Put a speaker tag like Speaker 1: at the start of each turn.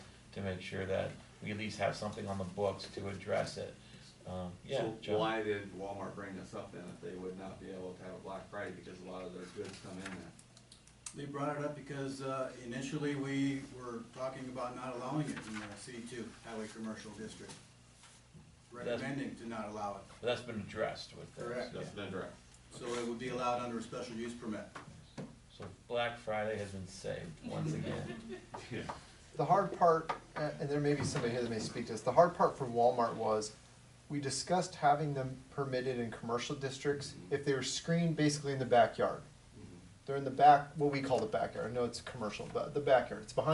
Speaker 1: to make sure that we at least have something on the books to address it. Um, yeah,
Speaker 2: So
Speaker 1: John?
Speaker 2: why did Walmart bring this up then, if they would not be able to have a Black Friday, because a lot of their goods come in there?
Speaker 3: They brought it up because uh, initially we were talking about not allowing it in the C two highway commercial district. Recommending to not allow it,
Speaker 1: But that's been addressed with this.
Speaker 3: Correct.
Speaker 1: yeah.
Speaker 2: That's been direct.
Speaker 3: so it would be allowed under a special use permit.
Speaker 1: So Black Friday has been saved once again.
Speaker 4: The hard part, a- and there may be somebody here that may speak to this, the hard part from Walmart was, we discussed having them permitted in commercial districts if they were screened basically in the backyard. They're in the back, what we call the backyard, I know it's commercial, but the backyard, it's behind